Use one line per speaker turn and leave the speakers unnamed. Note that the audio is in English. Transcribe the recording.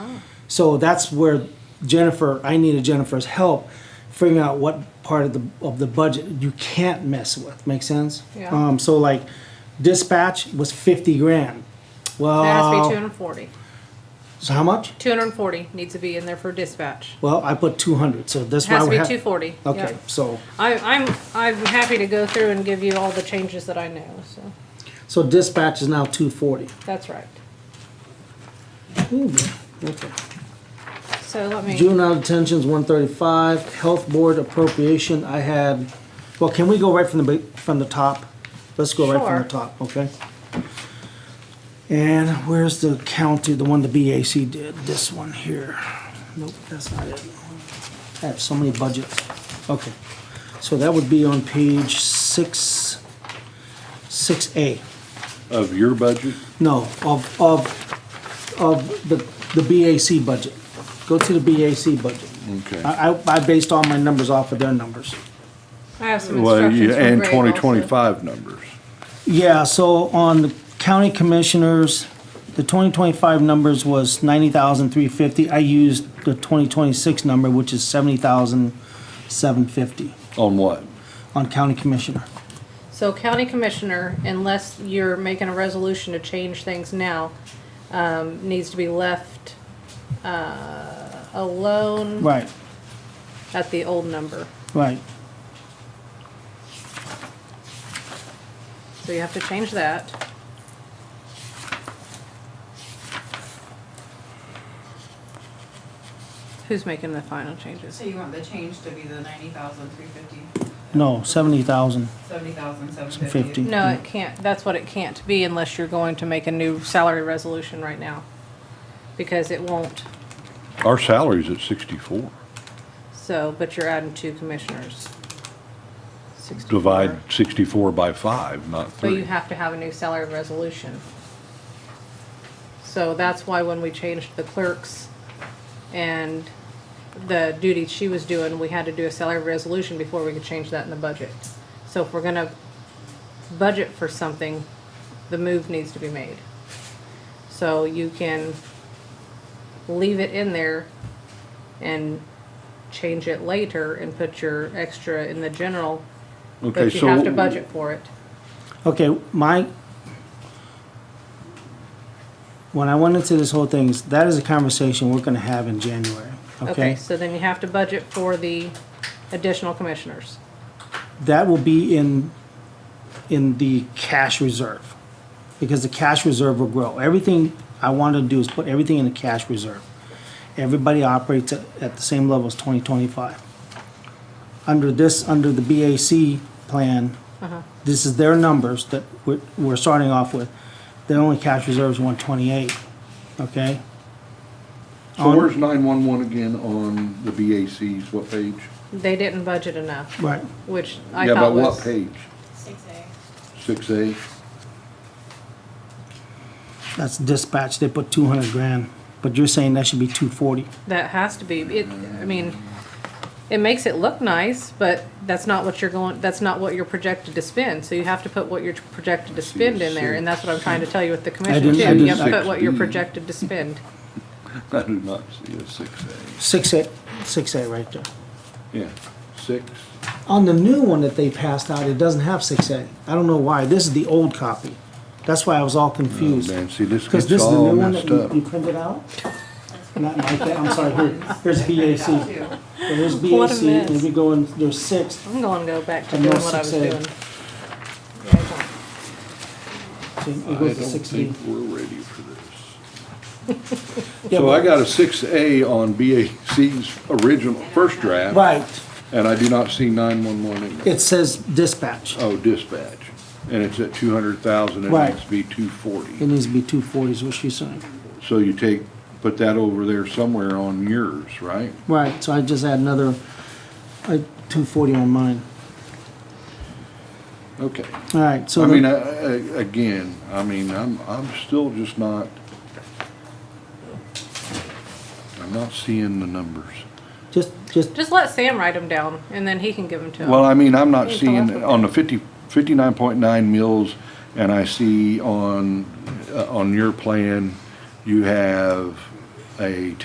So that's where Jennifer, I needed Jennifer's help figuring out what part of the of the budget you can't mess with. Make sense?
Yeah.
Um, so like dispatch was fifty grand. Well,
It has
Oh.
to be two hundred and forty.
so how much?
Two hundred and forty needs to be in there for dispatch.
Well, I put two hundred. So that's
It
why
has to
we
be
have.
two forty.
Okay, so
I, I'm, I'm happy to go through and give you all the changes that I know, so,
so dispatch is now two forty.
that's right.
Okay.
So let me,
Juvenile detention's one thirty-five, health board appropriation, I had, well, can we go right from the, ba- from the top? Let's go right from the
Sure.
top, okay? And where's the county, the one the BAC did, this one here? Nope, that's not it. I have so many budgets. Okay, so that would be on page six, six A.
Of your budget?
No, of, of, of the, the BAC budget. Go to the BAC budget.
Okay.
I, I- I based all my numbers off of their numbers.
I have some
Well,
instructions
you-
from
and
Greg
twenty
also.
twenty-five numbers.
Yeah, so on the county commissioners, the twenty twenty-five numbers was ninety thousand three fifty. I used the twenty twenty-six number, which is seventy thousand seven fifty
On what?
on county commissioner.
So county commissioner, unless you're making a resolution to change things now, um, needs to be left, uh, alone
Right,
at the old number.
right.
So you have to change that. Who's making the final changes?
So you want the change to be the ninety thousand, three fifty,
No, seventy thousand.
seventy thousand, seven
Fifty.
fifty?
No, it can't, that's what it can't be unless you're going to make a new salary resolution right now. Because it won't,
Our salary's at sixty-four.
so, but you're adding two commissioners. 64.
Divide sixty-four by five, not
But you
three.
have to have a new salary resolution. So that's why when we changed the clerks and the duty she was doing, we had to do a salary resolution before we could change that in the budget. So if we're gonna budget for something, the move needs to be made. So you can leave it in there and change it later and put your extra in the general,
Okay,
but you have
so-
to budget for it.
Okay, my, when I went into this whole thing, is- that is a conversation we're gonna have in January,
Okay,
okay?
so then you have to budget for the additional commissioners.
That will be in, in the cash reserve, because the cash reserve will grow. Everything I want to do is put everything in the cash reserve. Everybody operates at, at the same level as twenty twenty-five. Under this, under the BAC plan, this is their numbers that we're, we're starting off with. Their only cash reserve is one twenty-eight, okay?
So where's nine-one-one again on the BACs, what page?
They didn't budget enough,
Right,
which I
Yeah,
thought
but what
was.
page?
Six A.
Six A?
that's dispatch, they put two hundred grand, but you're saying that should be two forty.
That has to be, it, I mean, it makes it look nice, but that's not what you're going, that's not what you're projected to spend. So you have to put what you're projected to spend in there, and that's what I'm trying to tell you with the commission
didn't- I
too. You
didn't-
have to put what you're
16.
projected to spend.
I do not see a six A.
Six A, six A right there.
Yeah, six.
On the new one that they passed out, it doesn't have six A. I don't know why. This is the old copy. That's why I was all
Oh,
confused.
man, see, this
Because
gets
this is the
all
new one that
messed
you,
up.
you printed out? Not like that, I'm sorry, here, here's BAC. There's
What a
BAC,
mess.
and we go in, there's six,
I'm gonna go back to
And no
doing what I was
6A.
doing.
so
I
it
don't
goes to six B.
think we're ready for this. So I got a six A on BAC's original, first draft.
Right,
And I do not see nine-one-one in there.
it says dispatch.
Oh, dispatch. And it's at two hundred thousand, it
Right.
needs to be two
It
forty.
needs to be two forties, what she's saying.
So you take, put that over there somewhere on yours, right?
Right, so I just add another, uh, two forty on mine.
Okay.
All right, so.
I
the-
mean, I- I- again, I mean, I'm, I'm still just not, I'm not seeing the numbers.
Just, just,
Just let Sam write them down, and then he can give them to
Well,
him.
I mean, I'm not
Here's the last
seeing,
one.
on the fifty, fifty-nine point nine mills, and I see on, uh, on your plan, you have a